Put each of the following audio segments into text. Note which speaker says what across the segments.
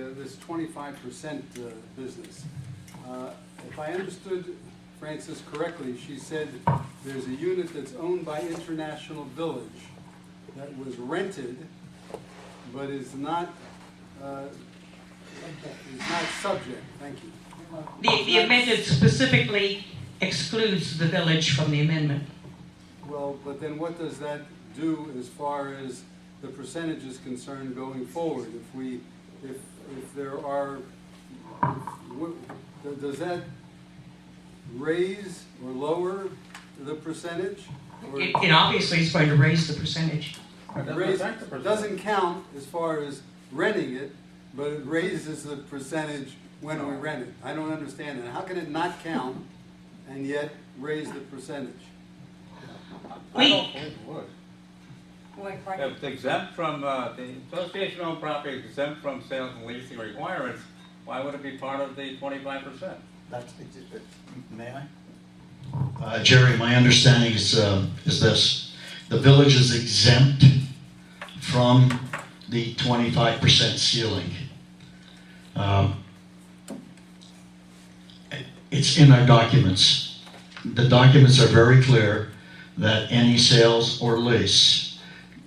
Speaker 1: Uh, This twenty-five percent business. Uh, If I understood Frances correctly, she said there's a unit that's owned by International Village that was rented, but is not, uh, is not subject, thank you.
Speaker 2: The, the amendment specifically excludes the village from the amendment.
Speaker 1: Well, but then what does that do as far as the percentage is concerned going forward? If we, if, if there are, what, does that raise or lower the percentage? Or
Speaker 2: It, it obviously is going to raise the percentage.
Speaker 3: Doesn't
Speaker 1: raise-
Speaker 3: affect the percentage.
Speaker 1: Doesn't count as far as renting it, but it raises the percentage when we rent it. I don't understand that. How can it not count and yet raise the percentage?
Speaker 3: I
Speaker 2: We-
Speaker 3: don't think it would.
Speaker 4: Wait, pardon?
Speaker 3: If it's exempt from, uh, the association owned property is exempt from sales and leasing requirements, why would it be part of the twenty-five percent?
Speaker 5: That's, may I? Uh, Jerry, my understanding is, uh, is this, the village is exempt from the twenty-five percent ceiling. Um, it- It's in our documents. The documents are very clear that any sales or lease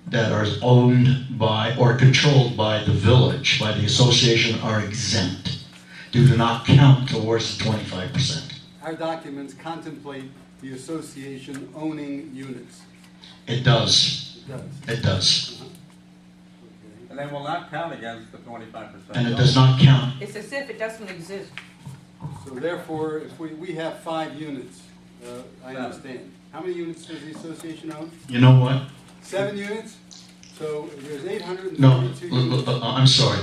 Speaker 5: that are owned by or controlled by the village, by the association, are exempt do not count towards the twenty-five percent.
Speaker 1: Our documents contemplate the association owning units.
Speaker 5: It does,
Speaker 1: It does.
Speaker 5: it does,
Speaker 1: Okay.
Speaker 3: And they will not count against the twenty-five percent.
Speaker 5: and it does not count.
Speaker 4: It's as if it doesn't exist.
Speaker 1: So therefore, if we, we have five units, uh, I
Speaker 3: Seven.
Speaker 1: understand. How many units does the association own?
Speaker 5: You know what?
Speaker 1: Seven units? So there's eight hundred and
Speaker 5: No,
Speaker 1: thirty-two
Speaker 5: l-
Speaker 1: units.
Speaker 5: l- l- uh, I'm sorry.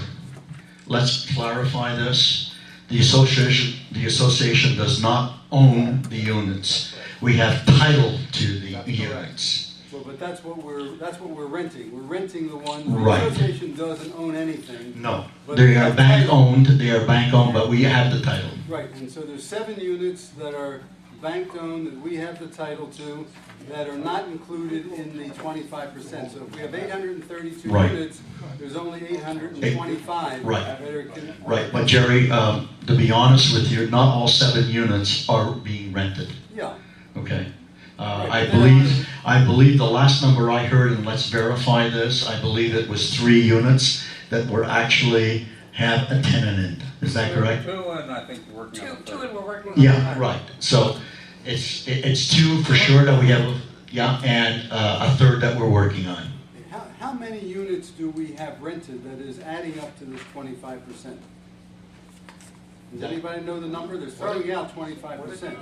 Speaker 5: Let's clarify this. The association, the association does not own the units. We have title to the units.
Speaker 1: Well, but that's what we're, that's what we're renting. We're renting the one, the
Speaker 5: Right.
Speaker 1: association doesn't own anything.
Speaker 5: No, they are bank-owned, they are bank-owned, but we have the title.
Speaker 1: Right, and so there's seven units that are bank-owned that we have the title to that are not included in the twenty-five percent. So if we have eight hundred and thirty-two
Speaker 5: Right.
Speaker 1: units, there's only eight hundred and twenty-five
Speaker 5: Right.
Speaker 1: that are. con-
Speaker 5: Right, but Jerry, um, to be honest with you, not all seven units are being rented.
Speaker 1: Yeah,
Speaker 5: Okay. Uh,
Speaker 1: Right,
Speaker 5: I
Speaker 1: but then-
Speaker 5: believe, I believe the last number I heard, and let's verify this, I believe it was three units that were actually have a tenant in. Is that correct?
Speaker 3: Two, and I think we're working
Speaker 4: Two,
Speaker 3: on the
Speaker 4: two
Speaker 3: third.
Speaker 4: and we're working on.
Speaker 5: Yeah, right. So it's, it- it's two for sure that we have, yeah, and uh, a third that we're working on.
Speaker 1: how, how many units do we have rented that is adding up to this twenty-five percent? Does anybody know the number? They're throwing out twenty-five percent.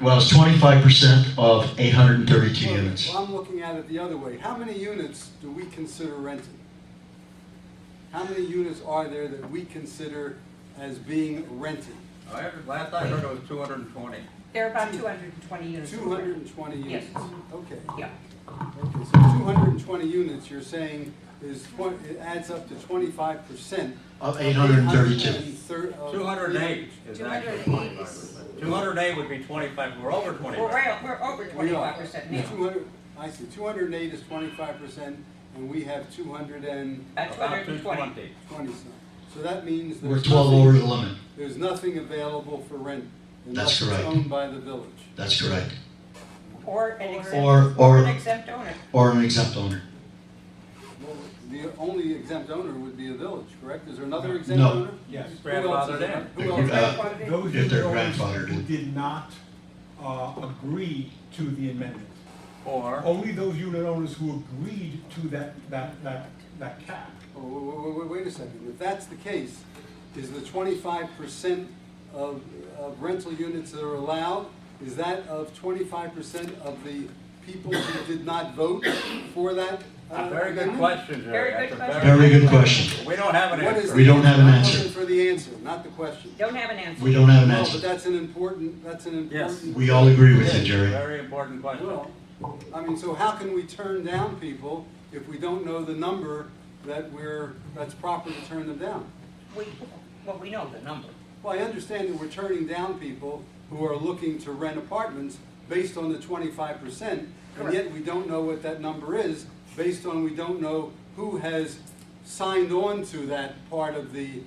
Speaker 5: Well, it's twenty-five percent of eight hundred and thirty-two units.
Speaker 1: Well, I'm looking at it the other way. How many units do we consider rented? How many units are there that we consider as being rented?
Speaker 3: I heard- Oh, Last I heard it was two hundred and twenty.
Speaker 4: There are about two hundred and twenty units.
Speaker 1: Two hundred and twenty
Speaker 4: Yes.
Speaker 1: units? Okay,
Speaker 4: Yeah,
Speaker 1: okay, so two hundred and twenty units, you're saying is, twen- it adds up to twenty-five percent? uh,
Speaker 5: Of eight hundred and thirty-two.
Speaker 3: Two hundred and eight is
Speaker 4: 208
Speaker 3: actually twenty-five
Speaker 4: is-
Speaker 3: percent. Two hundred and eight would be twenty-five, we're over
Speaker 4: we're,
Speaker 3: twenty-five.
Speaker 4: right- we're over
Speaker 1: We are.
Speaker 4: twenty-five percent now.
Speaker 1: Two hundred, I see, two hundred and eight is twenty-five percent, and we have two hundred and
Speaker 4: About two
Speaker 3: About
Speaker 4: hundred
Speaker 3: two
Speaker 4: and twenty.
Speaker 3: twenty.
Speaker 1: twenty-some. So that means
Speaker 5: We're
Speaker 1: there's
Speaker 5: twelve
Speaker 1: nothing-
Speaker 5: over the limit.
Speaker 1: There's nothing available for rent unless
Speaker 5: That's
Speaker 1: it's
Speaker 5: correct.
Speaker 1: owned by the village.
Speaker 5: That's correct.
Speaker 4: Or an exempt,
Speaker 5: Or,
Speaker 4: or an
Speaker 5: or,
Speaker 4: exempt owner.
Speaker 5: or an exempt owner.
Speaker 1: Well, The only exempt owner would be a village, correct? Is there another exempt
Speaker 5: No.
Speaker 1: owner?
Speaker 6: Yes.
Speaker 1: Who else is
Speaker 3: Grandfathered in.
Speaker 1: Who else?
Speaker 5: Uh,
Speaker 6: Those
Speaker 5: If they're
Speaker 6: employees
Speaker 5: grandfathered in.
Speaker 6: who did not uh, agree to the amendment.
Speaker 3: Or.
Speaker 6: Only those unit owners who agreed to that, that, that, that cap.
Speaker 1: Oh, Wait, wait, wait, wait a second. If that's the case, is the twenty-five percent of, of rental units that are allowed, is that of twenty-five percent of the people who did not vote for that? uh,
Speaker 3: A very good
Speaker 1: amendment?
Speaker 3: question, Jerry.
Speaker 4: Mm-hmm. Very good
Speaker 3: That's a
Speaker 5: Very good question.
Speaker 3: We don't have an
Speaker 1: What is
Speaker 3: answer.
Speaker 5: We
Speaker 1: the
Speaker 5: don't have an
Speaker 1: I'm
Speaker 5: answer.
Speaker 1: looking For the answer, not the question.
Speaker 4: Don't have an answer.
Speaker 5: We don't have an
Speaker 1: No, but
Speaker 5: answer.
Speaker 1: that's an important, that's an
Speaker 3: Yes.
Speaker 1: important.
Speaker 5: We all agree with you,
Speaker 3: Yes,
Speaker 5: Jerry.
Speaker 3: Very important question.
Speaker 1: Well, I mean, so how can we turn down people if we don't know the number that we're, that's proper to turn them down?
Speaker 4: We, well, we know the number.
Speaker 1: Well, I understand that we're turning down people who are looking to rent apartments based on the twenty-five percent, and yet we don't know what that number is, based on we don't know who has signed on to that part of the